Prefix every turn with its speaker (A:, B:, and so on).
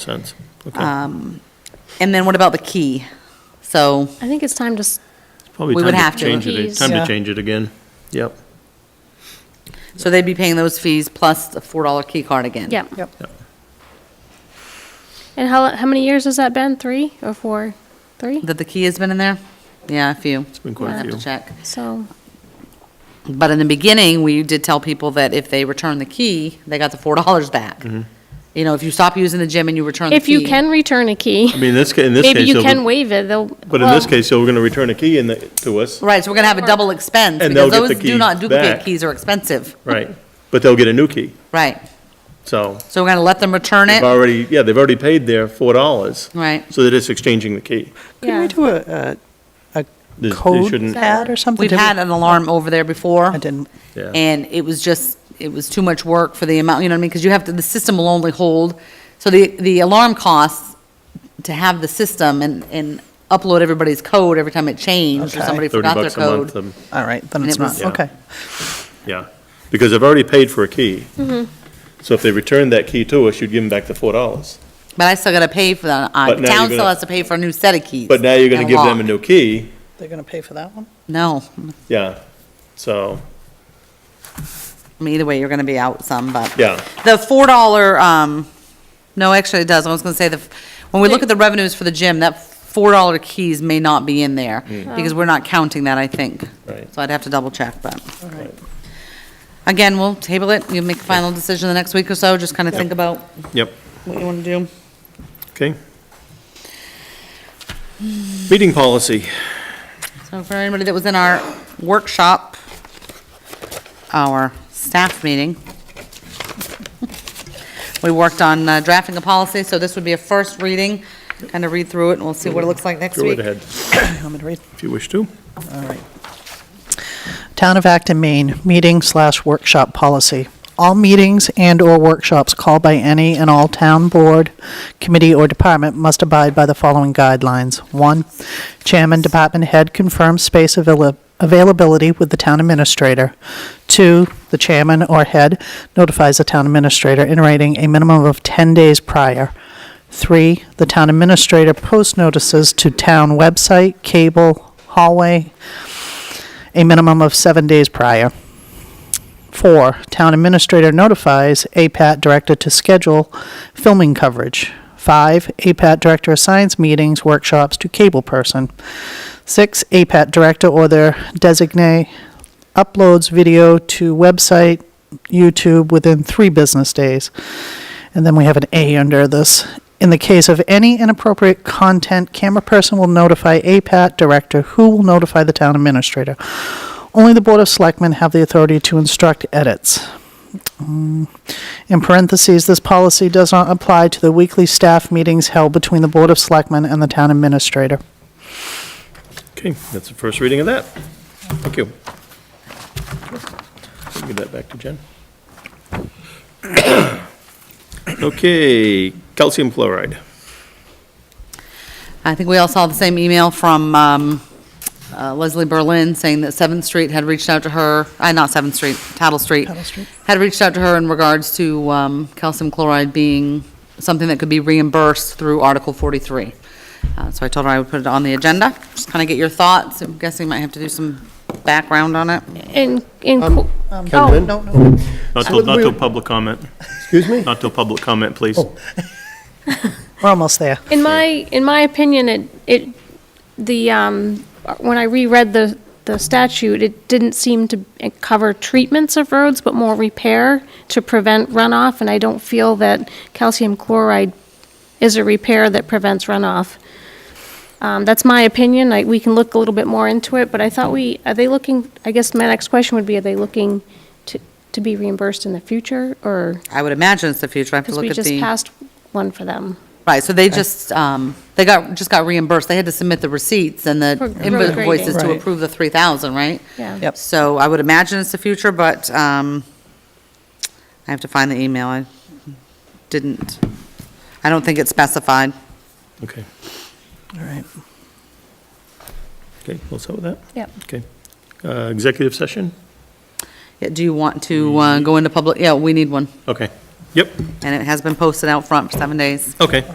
A: sense. Okay.
B: Uh, And then what about the key? So,
C: I think it's time to, s-
A: Probably
B: we
A: time
B: would have to.
A: Change it,
C: Fees.
A: time to
D: Yeah.
A: change it again. Yep.
B: so they'd be paying those fees plus a $4 key card again?
C: yeah.
D: Yep.
A: Yep.
C: And how, how many years has that been? Three or four? Three?
B: That the key has been in there? Yeah, a few. It's
A: been quite a
B: i have
A: few.
B: to check.
C: So,
B: But in the beginning, we did tell people that if they returned the key, they got the $4 back.
A: Mm-hmm.
B: You know, if you stop using the gym and you return the
C: if
B: key.
C: you can return a key,
A: I mean, this, ca- in this case.
C: maybe you
A: they'll-
C: can waive it, they'll.
A: But in this
C: well,
A: case, so we're going to return a key in the, to us,
B: Right, so we're going to have a double expense.
A: And they'll
B: because
A: get
B: those
A: the
B: do not
A: keys
B: duplicate
A: back.
B: keys are expensive.
A: right? But they'll get a new key.
B: Right.
A: So
B: So we're going to let them return
A: they've
B: it?
A: already, yeah, they've already paid their four dollars.
B: Right.
A: So they're just exchanging the key.
D: Can
C: Yeah.
D: we do a, a,
A: They-
D: a
A: they
D: code
A: shouldn't-
D: ad or something?
B: We've
D: Did we-
B: had an alarm over there before.
D: I didn't.
A: Yeah.
B: And it was just, it was too much work for the amount, you know what I mean? Because you have to, the system will only hold, so the, the alarm costs to have the system and, and upload everybody's code every time it changed, or
D: Okay.
B: somebody
A: Thirty
B: forgot their
A: bucks a month,
B: code.
A: um,
D: All right, then
B: And
D: it's
B: it was-
D: not,
A: Yeah.
D: okay.
A: yeah. Because they've already paid for a key.
B: Mm-hmm.
A: So if they return that key to us, you'd give them back the four dollars.
B: But I still gotta pay for the, uh,
A: But
B: the
A: now you're
B: town still
A: gonna-
B: has to pay for a new set of keys.
A: But now you're going to
B: and
A: give them a
B: lock.
A: new key,
D: They're going to pay for that one?
B: No,
A: yeah. So,
B: I mean, either way, you're gonna be out some, but.
A: yeah,
B: The four dollar, um, no, actually it does. I was gonna say the, when we look at the revenues for the gym, that four dollar keys may not be in there
D: Oh.
B: because we're not counting that, I think.
A: Hmm. Right.
B: So I'd have to double check, but.
D: All right.
B: Again, we'll table it. You'll make a final decision the next week or so. Just kind of think about
A: yep,
B: what you want to do.
A: okay. Meeting policy.
B: So for anybody that was in our workshop, our staff meeting, we worked on uh, drafting a policy, so this would be a first reading. Kind of read through it and we'll see what it looks like next
A: Go right
B: week.
A: ahead,
D: You want me to read?
A: if you wish to.
D: All right. Town of Acton, Maine, meeting slash workshop policy. All meetings and/or workshops called by any and all town board, committee, or department must abide by the following guidelines. One, chairman, department head confirms space avail- availability with the town administrator. Two, the chairman or head notifies the town administrator in writing a minimum of 10 days prior. Three, the town administrator posts notices to town website, cable, hallway, a minimum of seven days prior. Four, town administrator notifies APAT director to schedule filming coverage. Five, APAT director assigns meetings, workshops to cable person. Six, APAT director or their designate uploads video to website, YouTube within three business days. And then we have an A under this. In the case of any inappropriate content, camera person will notify APAT director, who will notify the town administrator. Only the Board of Selectmen have the authority to instruct edits. Mm, In parentheses, this policy does not apply to the weekly staff meetings held between the Board of Selectmen and the town administrator.
A: Okay, that's the first reading of that. Thank you. Give that back to Jen. Okay, calcium fluoride.
B: I think we all saw the same email from um, uh, Leslie Berlin saying that Seventh Street had reached out to her, uh, not Seventh Street, Tattle Street.
D: Tattle Street.
B: Had reached out to her in regards to um, calcium chloride being something that could be reimbursed through Article 43. Uh, So I told her I would put it on the agenda, just kind of get your thoughts. I'm guessing might have to do some background on it.
C: In, in, co-
D: Oh,
E: Lynn?
D: no, no.
A: Not till, not till public comment,
E: Excuse me?
A: not till public comment, please.
D: We're almost there.
C: in my, in my opinion, it, it, the, um, when I reread the, the statute, it didn't seem to cover treatments of roads, but more repair to prevent runoff, and I don't feel that calcium chloride is a repair that prevents runoff. Um, that's my opinion, I, we can look a little bit more into it, but I thought we, are they looking, I guess my next question would be, are they looking to, to be reimbursed in the future, or?
B: I would imagine it's the future. I have to
C: Because
B: look
C: we
B: at the.
C: just passed one for them.
B: Right, so they just, um, they got, just got reimbursed, they had to submit the receipts and the
C: For road
B: invoices
C: grading.
B: to
D: Right.
B: approve the three thousand, right?
C: Yeah.
D: Yep.
B: So I would imagine it's the future, but, um, I have to find the email, I didn't, I don't think it's specified.
A: Okay,
D: All right.
A: okay, we'll start with that.
C: Yep.
A: Okay. Uh, Executive session?
B: Yeah, Do you want to, uh, go into public, yeah, we need one,
A: Okay. Yep,
B: and it has been posted out front for seven days.
A: okay.